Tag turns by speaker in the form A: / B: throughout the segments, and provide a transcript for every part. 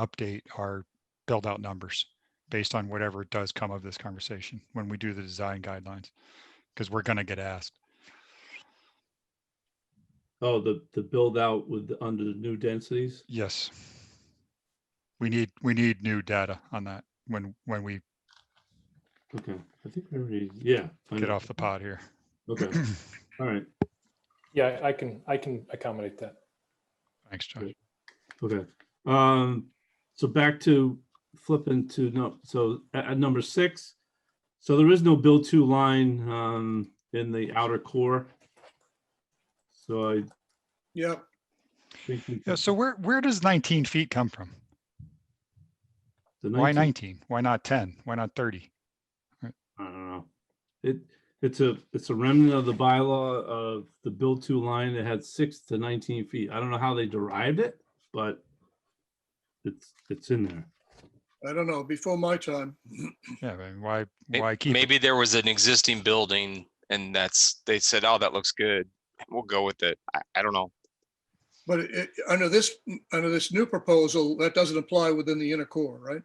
A: update our build out numbers based on whatever does come of this conversation when we do the design guidelines. Because we're gonna get asked.
B: Oh, the, the build out with, the- under the new densities?
A: Yes. We need, we need new data on that when, when we
B: Okay, I think we already, yeah. I
A: get
B: know.
C: Mm-hmm.
A: off the pod here.
B: Okay, all right,
D: Yeah, I can, I can accommodate that.
A: Thanks, Josh.
B: Great. okay. Um, so back to flipping to, no, so at, at number six. So there is no build to line, um, in the outer core. So I
E: Yep,
B: think. we
A: Yeah,
B: can-
A: so where, where does nineteen feet come from?
B: the
A: Why
B: 19
A: nineteen? Why not ten? Why not thirty?
B: I don't know. It, it's a, it's a remnant of the bylaw of the build to line that had six to nineteen feet. I don't know how they derived it, but it's, it's in there.
E: I don't know, before my time.
A: Yeah, I mean, why,
C: May-
A: why keep? it?
C: Maybe there was an existing building and that's, they said, oh, that looks good. We'll go with it. I, I don't know.
E: But it- it, under this, under this new proposal, that doesn't apply within the inner core, right?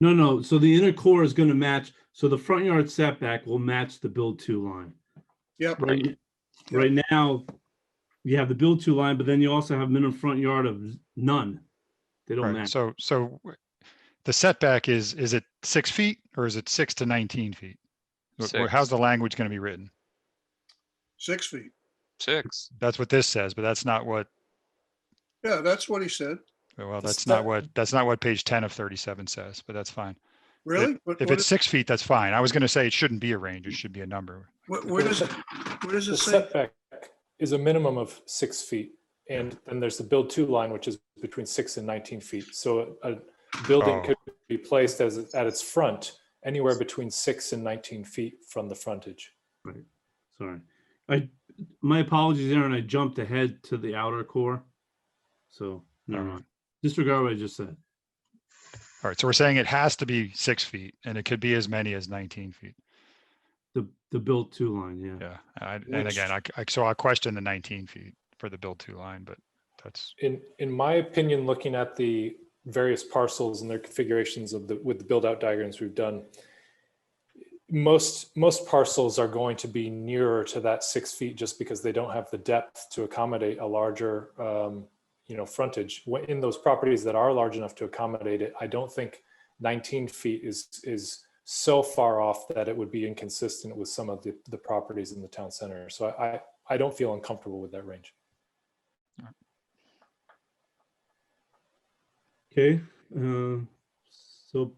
B: No, no, so the inner core is gonna match, so the front yard setback will match the build to line.
E: Yep,
B: Right, right now, you have the build to line, but then you also have minimum front yard of none. They don't
A: Right,
B: match.
A: so, so w- the setback is, is it six feet or is it six to nineteen feet? Wh- wh- How's
C: Six.
A: the language gonna be written?
E: six feet.
C: Six.
A: That's what this says, but that's not what,
E: Yeah, that's what he said.
A: well,
D: The
A: that's not
D: set-
A: what, that's not what page ten of thirty-seven says, but that's fine.
E: Really? What-
A: If
E: what
A: it's
E: is-
A: six feet, that's fine. I was gonna say it shouldn't be a range, it should be a number.
E: Where where does, it- where does
D: The
E: it say?
D: setback is a minimum of six feet. And then there's the build two line, which is between six and 19 feet. So a a building
A: Oh.
D: could be placed as, at its front, anywhere between six and 19 feet from the frontage.
B: Sorry. I, my apologies, Aaron, I jumped ahead to the outer core. So, never
A: Alright.
B: mind. Disregard what I just said.
A: All right, so we're saying it has to be six feet and it could be as many as nineteen feet.
B: The, the build two line, yeah.
A: Yeah, I- and
D: Which-
A: again, I, c- I- so I question the nineteen feet for the build two line, but that's,
D: In, in my opinion, looking at the various parcels and their configurations of the, with the build out diagrams we've done, most, most parcels are going to be nearer to that six feet just because they don't have the depth to accommodate a larger, um, you know, frontage. Wh- In those properties that are large enough to accommodate it, I don't think 19 feet is, is so far off that it would be inconsistent with some of the, the properties in the town center. So I, I- I don't feel uncomfortable with that range.
B: Okay, uh, so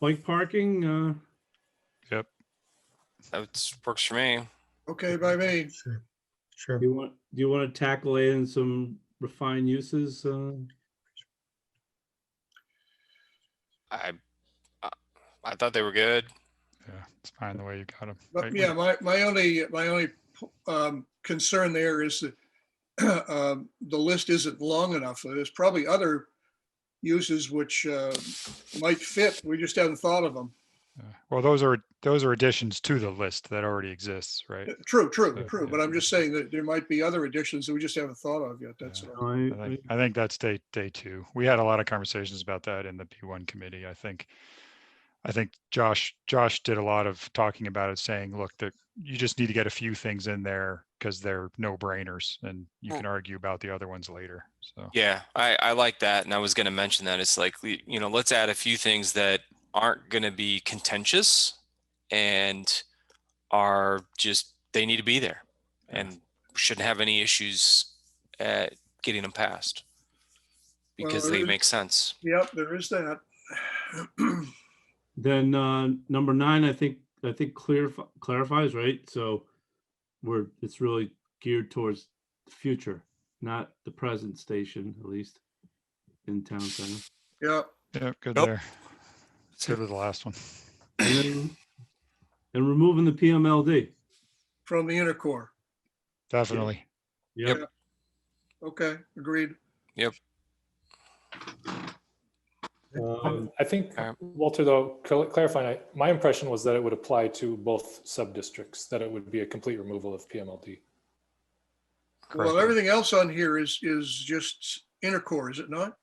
B: bike parking, uh,
A: yep.
C: That works for me.
E: Okay, by me,
F: Sure. Sure.
B: you want, do you want to tackle in some refined uses? Uh,
C: I, I- I thought they were good.
A: Yeah, it's fine the way you got them.
E: but yeah, my, my only, my only um, concern there is that um, the list isn't long enough. There's probably other uses which uh, might fit. We just haven't thought of them.
A: Well, those are, those are additions to the list that already exists, right?
E: True, true,
A: Yeah,
E: true.
A: yeah.
E: But I'm just saying that there might be other additions that we just haven't thought of yet. That's
A: Yeah.
E: all.
B: I-
A: I
B: I-
A: think, I think that's day, day two. We had a lot of conversations about that in the P1 committee. I think, I think Josh, Josh did a lot of talking about it, saying, look, that you just need to get a few things in there because they're no brainers and you
C: Mm.
A: can argue about the other ones later. So,
C: Yeah, I, I like that. And I was gonna mention that. It's like, we- you know, let's add a few things that aren't gonna be contentious and are just, they need to be there
A: Yeah.
C: and shouldn't have any issues at getting them passed.
E: Well,
C: Because they
E: it-
C: make sense.
E: Yep, there is that.
B: Then, uh, number nine, I think, I think clear, clarifies, right? So we're, it's really geared towards the future, not the present station, at least in town center.
E: Yeah,
A: yeah, good
C: Nope.
A: there. Good with the last one.
B: And then- and removing the PMLD.
E: from the inner core.
A: Definitely.
B: Yep.
E: Okay, agreed.
B: Um,
D: I think,
C: Um,
D: Walter, though, cl- clarifying, I- my impression was that it would apply to both sub-districts, that it would be a complete removal of PMLD.
E: Well,
A: Correct.
E: everything else on here is, is just inner core, is it not?